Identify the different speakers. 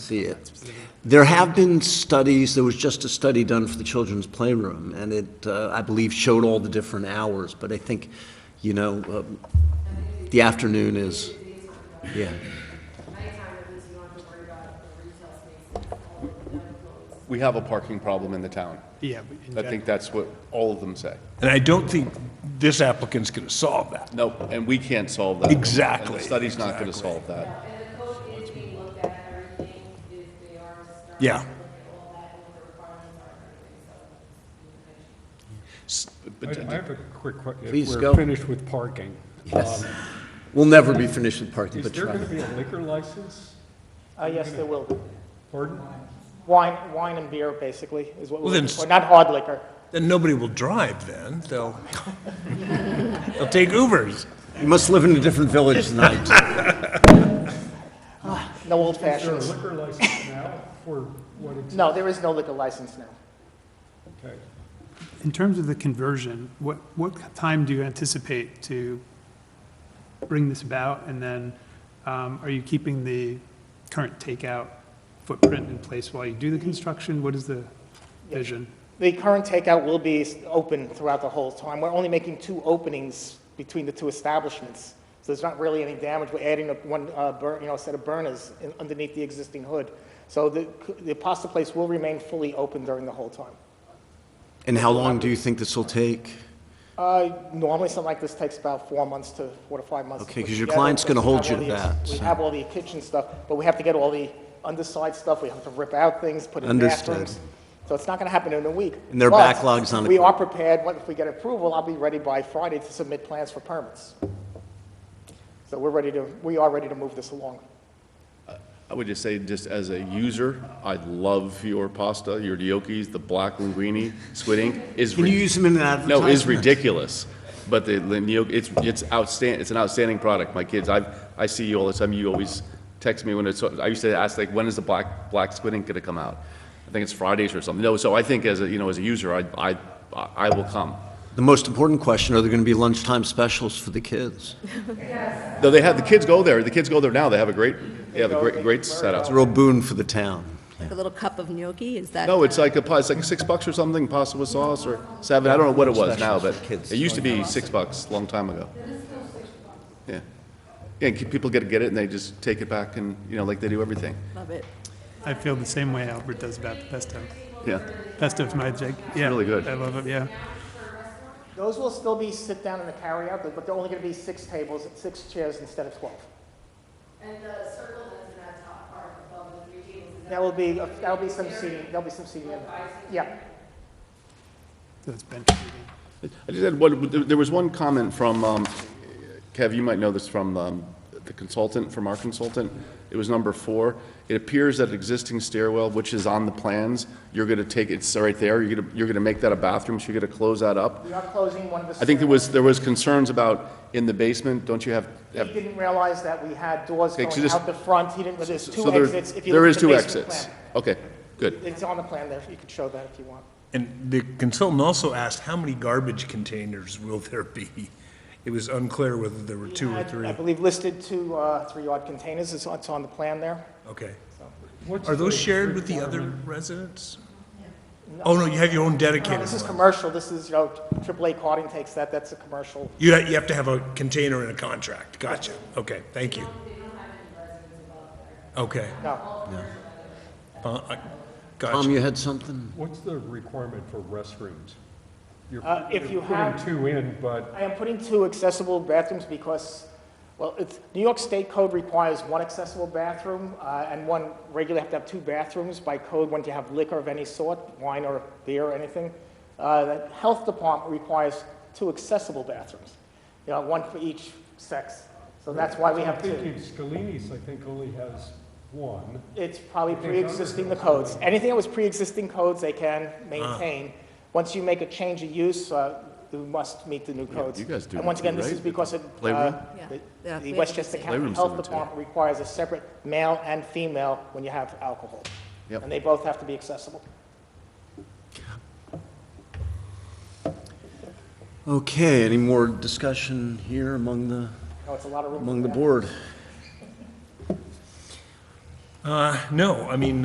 Speaker 1: see it. There have been studies, there was just a study done for the children's playroom, and it, uh, I believe, showed all the different hours, but I think, you know, um, the afternoon is, yeah.
Speaker 2: Nighttime, at least you don't have to worry about the retail spaces, all of them closed.
Speaker 3: We have a parking problem in the town.
Speaker 4: Yeah. but in
Speaker 3: I
Speaker 4: gen-
Speaker 3: think that's what all of them say.
Speaker 5: And I don't think this applicant's going to solve that.
Speaker 3: No, and we can't solve that. And
Speaker 5: Exactly,
Speaker 3: the study's not going to
Speaker 5: exactly.
Speaker 3: solve that.
Speaker 2: And the code is being looked at, everything is, they are starting
Speaker 5: Yeah.
Speaker 2: to look at all that, and what the requirements are, and everything, so.
Speaker 3: But
Speaker 4: I I have a quick question.
Speaker 1: Please go.
Speaker 4: We're finished with parking.
Speaker 1: Yes.
Speaker 4: Um,
Speaker 1: We'll never be finished with parking,
Speaker 4: Is
Speaker 1: but
Speaker 4: there
Speaker 1: try.
Speaker 4: going to be a liquor license?
Speaker 6: Uh, yes, there will be.
Speaker 4: Pardon?
Speaker 6: Wine, wine and beer, basically, is what
Speaker 5: Well,
Speaker 6: we're
Speaker 5: then
Speaker 6: looking for,
Speaker 5: s-
Speaker 6: not hard liquor.
Speaker 5: Then nobody will drive then, they'll, they'll take Ubers.
Speaker 1: You must live in a different village tonight.
Speaker 6: No old
Speaker 4: Is there a
Speaker 6: fashions.
Speaker 4: liquor license now for what it's,
Speaker 6: No, there is no liquor license now.
Speaker 4: okay.
Speaker 7: In terms of the conversion, what, what time do you anticipate to bring this about? And then, um, are you keeping the current takeout footprint in place while you do the construction? What is the vision?
Speaker 6: The current takeout will be s- open throughout the whole time. We're only making two openings between the two establishments, so there's not really any damage. We're adding a- one, uh, bur- you know, set of burners in- underneath the existing hood. So the, c- the pasta place will remain fully open during the whole time.
Speaker 1: And how long do you think this will take?
Speaker 6: Uh, Normally, something like this takes about four months to, four to five months. to
Speaker 1: Okay,
Speaker 6: put
Speaker 1: 'cause your
Speaker 6: together,
Speaker 1: client's gonna
Speaker 6: because we
Speaker 1: hold
Speaker 6: have
Speaker 1: you to
Speaker 6: all the-
Speaker 1: that,
Speaker 6: We
Speaker 1: so.
Speaker 6: have all the kitchen stuff, but we have to get all the underside stuff, we have to rip out things, put in
Speaker 1: Understood.
Speaker 6: bathrooms. So it's not gonna happen in a week.
Speaker 1: And their
Speaker 6: But
Speaker 1: backlog's not
Speaker 6: We
Speaker 1: equipped.
Speaker 6: are prepared, What- if we get approval, I'll be ready by Friday to submit plans for permits. So we're ready to, we are ready to move this along.
Speaker 3: I would just say, just as a user, I love your pasta, your gnocchis, the black linguine, squid ink. is
Speaker 1: Can you
Speaker 3: rid-
Speaker 1: use them in an
Speaker 3: No, it's
Speaker 1: advertisement?
Speaker 3: ridiculous. But the the gnocchi, it's, it's outstanding, it's an outstanding product. My kids, I, I see you all the time. You always text me when it's, I used to ask like, when is the black, black squid ink going to come out? I think it's Fridays or something. No, so I think as a, you know, as a user, I, I, I will come.
Speaker 1: The most important question, are there going to be lunchtime specials for the kids?
Speaker 3: No, they have, the kids go there. The kids go there now. They have a great, they have a great, great setup.
Speaker 1: It's a real boon for the town.
Speaker 8: Like a little cup of gnocchi, is that?
Speaker 3: No, it's like a, pa- it's like six bucks or something, pasta with sauce or seven, I don't know what it was now, but it used to be six bucks, a long time ago. Yeah. Yeah, and people get, get it and they just take it back and, you know, like they do everything.
Speaker 8: Love it.
Speaker 7: I feel the same way Albert does about the pesto.
Speaker 3: Yeah.
Speaker 7: Pesto's my jig. Yeah,
Speaker 3: really good.
Speaker 7: I love it, yeah.
Speaker 6: Those will still be sit down in the carryout, but they're only gonna be six tables, six chairs instead of 12.
Speaker 2: And the circle that's in that top part above the three tables is
Speaker 6: That will be, that'll be some seating, there'll be some seating. in there. Yeah.
Speaker 7: So it's been,
Speaker 3: I just had one, there- there was one comment from, um, Kev, you might know this from um, the consultant, from our consultant. It was number four. It appears that existing stairwell, which is on the plans, you're going to take, it's right there, you're going to, you're going to make that a bathroom, so you're going to close that up.
Speaker 6: We are closing one of the.
Speaker 3: I think there
Speaker 6: stairwells.
Speaker 3: was, there was concerns about in the basement, don't you have, have,
Speaker 6: He didn't realize that we had doors
Speaker 3: Okay, so
Speaker 6: going
Speaker 3: this-
Speaker 6: out the front, he didn't, there's two
Speaker 3: so there,
Speaker 6: exits. If you
Speaker 3: there
Speaker 6: look
Speaker 3: is
Speaker 6: at the
Speaker 3: two
Speaker 6: basement
Speaker 3: exits. Okay, good.
Speaker 6: plan, It's on the plan there, you can show that if you want.
Speaker 5: And the consultant also asked, how many garbage containers will there be? It was unclear whether there were two or
Speaker 6: I-
Speaker 5: three.
Speaker 6: I believe listed two, uh, three-yard containers, it's, on- it's on the plan there.
Speaker 5: Okay.
Speaker 4: What's
Speaker 5: Are those
Speaker 4: the
Speaker 5: shared with the other
Speaker 4: requirement?
Speaker 5: residents? Oh, no, you have your own
Speaker 6: No,
Speaker 5: dedicated
Speaker 6: This is
Speaker 5: one.
Speaker 6: commercial, this is, you know, AAA carding takes that, that's a commercial.
Speaker 5: You, ha- you have to have a container and a contract. Gotcha. Okay, thank you. Okay.
Speaker 6: No.
Speaker 5: Uh, I-
Speaker 1: Tom,
Speaker 5: Gotcha.
Speaker 1: you had something?
Speaker 4: What's the requirement for restrooms? You're
Speaker 6: Uh, if you
Speaker 4: you're
Speaker 6: have-
Speaker 4: Putting two in, but
Speaker 6: I am putting two accessible bathrooms because, well, it's, New York State code requires one accessible bathroom, uh, and one, regularly have to have two bathrooms by code when you have liquor of any sort, wine or beer or anything. Uh, the health department requires two accessible bathrooms, you know, one for each sex. So that's why we
Speaker 4: I'm
Speaker 6: have two.
Speaker 4: thinking Scalini's, I think, only has one.
Speaker 6: It's probably
Speaker 4: think
Speaker 6: pre-existing the
Speaker 4: others
Speaker 6: codes. Anything that was pre-existing codes, they can maintain.
Speaker 1: Ah.
Speaker 6: Once you make a change of use, uh, you must meet the new codes.
Speaker 3: you guys do
Speaker 6: And once
Speaker 3: it
Speaker 6: again,
Speaker 3: too,
Speaker 6: this is
Speaker 3: right?
Speaker 6: because it, uh,
Speaker 3: Playroom?
Speaker 8: Yeah.
Speaker 6: the-
Speaker 8: Yeah, we
Speaker 6: the
Speaker 8: have
Speaker 6: Westchester
Speaker 8: the
Speaker 6: County
Speaker 3: Playrooms do
Speaker 6: Health
Speaker 3: it, too.
Speaker 6: Department requires a separate male and female when you have alcohol.
Speaker 3: Yep.
Speaker 6: And they both have to be accessible.
Speaker 1: Okay, any more discussion here among the,
Speaker 6: You know, it's a lot of room.
Speaker 1: among
Speaker 6: for
Speaker 1: the
Speaker 6: that.
Speaker 1: board?
Speaker 5: Uh, no, I mean,